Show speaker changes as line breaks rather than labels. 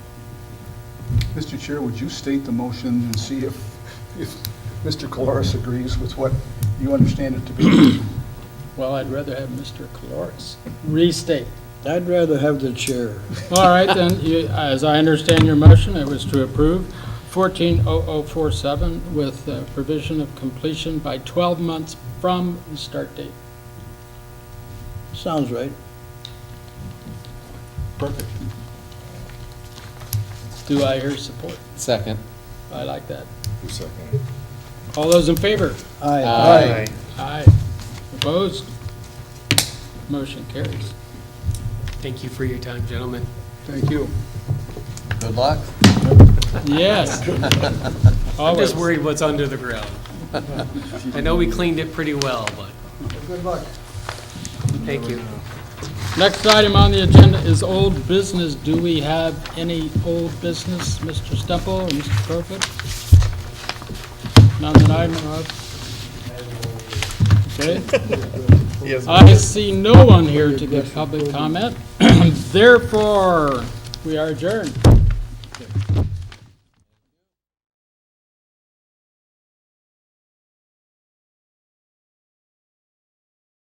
Mr. Chair, would you state the motion and see if, if Mr. Coloris agrees with what you understand it to be?
Well, I'd rather have Mr. Coloris restate.
I'd rather have the chair.
All right, then, you- as I understand your motion, it was to approve 140047 with uh, provision of completion by 12 months from the start date.
Sounds right.
Perfect.
Do I hear support?
Second.
I like that.
Who seconded?
All those in favor?
Aye.
Aye.
Aye. Opposed? Motion carries.
Thank you for your time, gentlemen.
Thank you.
Good luck.
Yes.
I'm
Always.
just worried what's under the ground. I know we cleaned it pretty well, but. Good luck. Thank you.
Next item on the agenda is old business. Do we have any old business, Mr. Stemple or Mr. Profit? None that I know of. Okay. I see no one here to give public comment. Therefore, we are adjourned.